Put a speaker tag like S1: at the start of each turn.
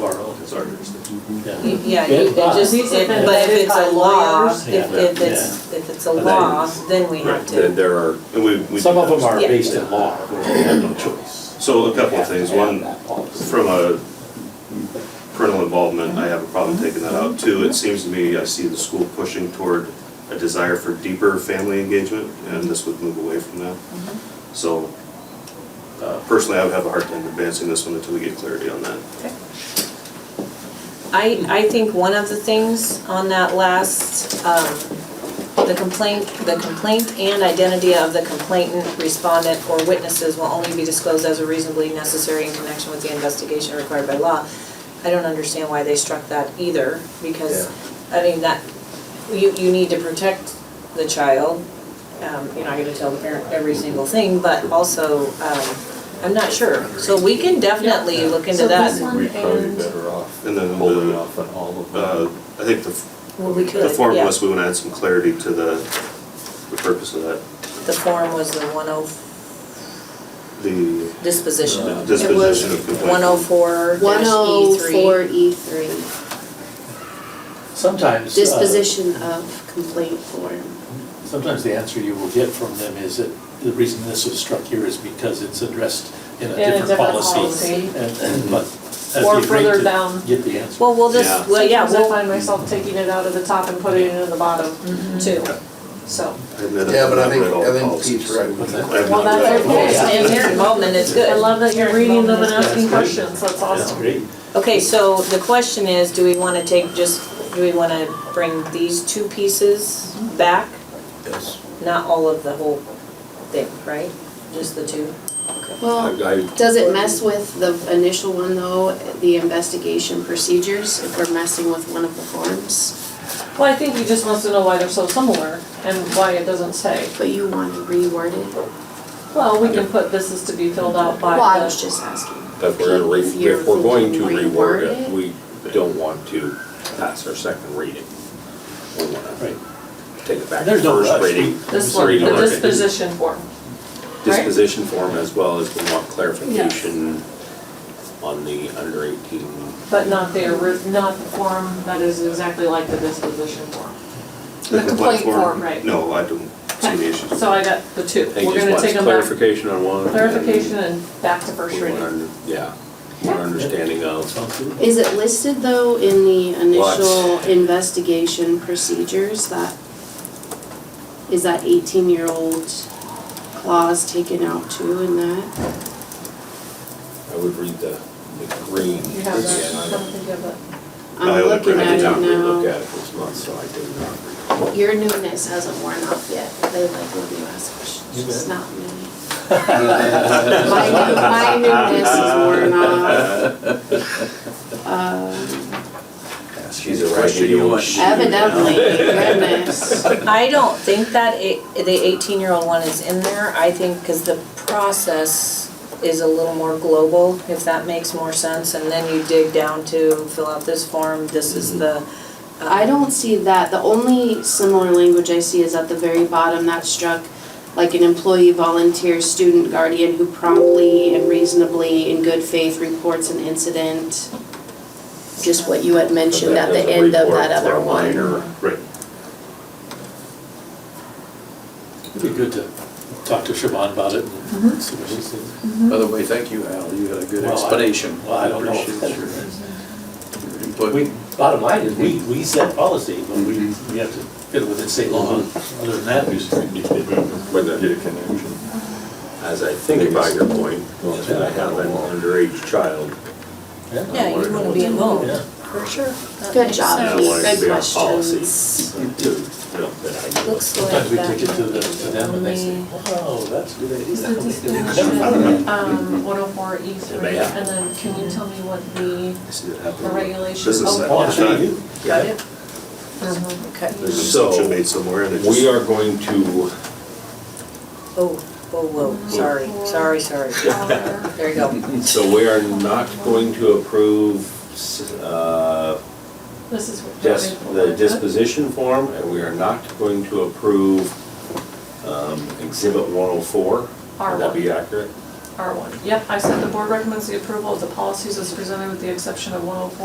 S1: sorry, Kristen.
S2: Yeah.
S3: Y- Yeah, you- it
S2: But-
S3: just,
S4: These
S3: it-
S4: have been
S3: but if it's a
S4: vetted by
S3: law,
S4: lawyers.
S3: if, if
S2: Yeah.
S3: it's, if it's a
S2: But
S3: law,
S2: then-
S3: then we have
S1: Right, then
S3: to.
S1: there are, and we, we.
S2: Some of them are
S3: Yeah.
S2: based in law, where they have no choice.
S1: So a couple of
S2: They have
S1: things,
S2: to have
S1: one,
S2: that policy.
S1: from a parental involvement, I have a problem taking that out. Two, it seems to me I see the school pushing toward a desire for deeper family engagement, and this would move away from that.
S3: Mm-hmm.
S1: So uh, personally, I would have a hard time advancing this one until we get clarity on that.
S3: I, I think one of the things on that last, um, the complaint, the complaint and identity of the complainant, respondent, or witnesses will only be disclosed as are reasonably necessary in connection with the investigation required by law. I don't understand why they struck that either, because, I mean, that, you, you need to protect the child. Um, you're not gonna tell the parent every single thing, but also, um, I'm not sure. So we can definitely look into
S4: So
S3: that.
S4: this
S5: We'd probably
S4: And-
S5: better off
S1: And then
S5: holding
S1: the-
S5: off on all of
S1: Uh,
S5: them.
S1: I think the,
S3: Well, we could,
S1: the form
S3: yeah.
S1: was, we want to add some clarity to the, the purpose of that.
S3: The form was the one oh,
S1: The
S3: disposition.
S1: the disposition of complaint.
S3: One oh four
S4: One oh
S3: E
S4: four
S3: three.
S4: E three,
S2: Sometimes. uh,
S4: disposition of complaint form.
S2: Sometimes the answer you will get from them is that the reason this was struck here is because it's addressed in a
S4: In a
S2: different
S4: different
S2: policy.
S4: policy.
S2: And- and- But as
S4: Or
S2: you read
S4: further
S2: to
S4: down.
S2: Get the answer.
S3: Well, we'll
S1: Yeah.
S3: just, well, yeah,
S4: Sometimes I
S3: we'll,
S4: find myself taking it out of the top and putting it in the bottom
S6: Mm-hmm.
S4: too, so.
S1: I admit
S7: Yeah, but I
S1: I've
S7: think,
S1: read all
S7: I think
S1: policies.
S7: Pete's right.
S2: What's that?
S1: I have
S4: Well,
S1: not
S4: that's
S1: read all
S4: okay.
S1: policies.
S3: and parent involvement is
S4: I
S3: good.
S4: love that you're reading them and
S2: That's
S4: asking
S2: great.
S4: questions, that's
S2: That's
S4: awesome.
S2: great.
S3: Okay, so the question is, do we wanna take just, do we wanna bring these two pieces back?
S7: Yes.
S3: Not all of the whole thing, right? Just the two?
S4: Well,
S5: I,
S4: does it mess with the initial one though, the investigation procedures, if we're messing with one of the forms?
S6: Well, I think he just wants to know why they're so similar and why it doesn't say.
S4: But you want to reword it?
S6: Well, we can put this is to be filled out by
S4: Well, I was
S6: the,
S4: just asking.
S5: if we're gonna re,
S4: If you're
S5: if we're going to
S4: thinking
S5: reword
S4: reword
S5: it,
S4: it?
S5: we don't want to pass our second reading. We wanna
S2: Right.
S5: take it back to
S2: There's no rush.
S5: first reading.
S6: this one,
S5: reading
S6: the
S5: order.
S6: disposition form. right?
S5: Disposition form as well as we want clarification on the under eighteen.
S6: But not the, ori- not the form that is exactly like the disposition form.
S1: The complaint form,
S6: right.
S1: no, I don't see any issues. with
S6: So I got the two.
S5: They
S6: We're
S5: just
S6: gonna
S5: want
S6: take them back.
S5: clarification on one. and
S6: Clarification and back to first
S5: we want
S6: reading.
S5: under- Yeah, one understanding of.
S2: Sounds good.
S4: Is it listed though in the initial
S5: What?
S4: investigation procedures that, is that eighteen-year-old clause taken out too in that?
S5: I would read the, the green.
S6: You have that,
S5: Yeah,
S6: I
S5: I
S6: don't
S5: don't-
S6: think you have that.
S1: I
S4: I'm
S1: only
S4: looking
S1: printed
S4: at
S5: I
S4: it
S5: did not relook
S4: now.
S5: at it this month, so I did not recall.
S4: Your newness hasn't worn off yet, they like when you ask questions, it's not new. My new, my newness is worn off. Um,
S5: She's a raggedy old shoe now.
S4: Evidently, goodness.
S3: I don't think that it, the eighteen-year-old one is in there, I think, cause the process is a little more global, if that makes more sense, and then you dig down to fill out this form, this is the. um,
S4: I don't see that. The only similar language I see is at the very bottom that struck like an employee, volunteer, student, guardian who promptly and reasonably in good faith reports an incident. Just what you had mentioned at the
S5: doesn't
S4: end of
S5: report
S4: that
S5: for
S4: other
S5: a
S4: one.
S5: minor.
S1: Right.
S2: It'd be good to talk to Siobhan about it
S4: Mm-hmm.
S2: and see what she says.
S8: By the way, thank you, Al, you had a good
S2: Well, I-
S8: explanation.
S2: well, I don't know.
S8: appreciate your your input.
S2: We, bottom line is, we, we set policy, but we, we have to fit it within state law. Other than that, we just.
S5: With
S7: Get
S5: the-
S7: a connection.
S5: as I think about your point,
S7: Well,
S5: is that I have an underage child.
S3: Yeah, you wanna be involved,
S2: Yeah.
S3: for sure. That
S4: Good
S3: makes
S4: job,
S3: sense.
S5: I wanted
S4: Keith.
S5: to be
S4: good
S5: on policy.
S4: questions.
S5: to, you know, that I know.
S3: Looks like
S2: Sometimes we
S3: that Mm-hmm.
S2: take it to
S3: might
S2: the,
S3: be
S2: to them and they say,
S3: only-
S2: oh, that's a good
S6: Is the
S2: idea.
S6: disposition, um, one oh four E three,
S5: Yeah.
S6: and then can you tell me what the,
S1: I see that
S6: the
S1: happening.
S6: regulation?
S1: This is
S6: oh,
S1: that
S2: Oh, I'm sure you
S3: Got it?
S4: Mm-hmm.
S3: Okay.
S1: There's a
S5: So,
S1: assumption made somewhere and it just.
S5: We are going to,
S3: Oh, whoa, whoa, sorry, sorry, sorry.
S6: Or-
S3: There you go.
S5: so we are not going to approve, uh,
S6: This is. what-
S5: Yes, the disposition form, and we are not going to approve um, Exhibit 104. Would that be accurate?
S6: R one, yep, I said the board recommends the approval of the policies as presented with the exception of one oh four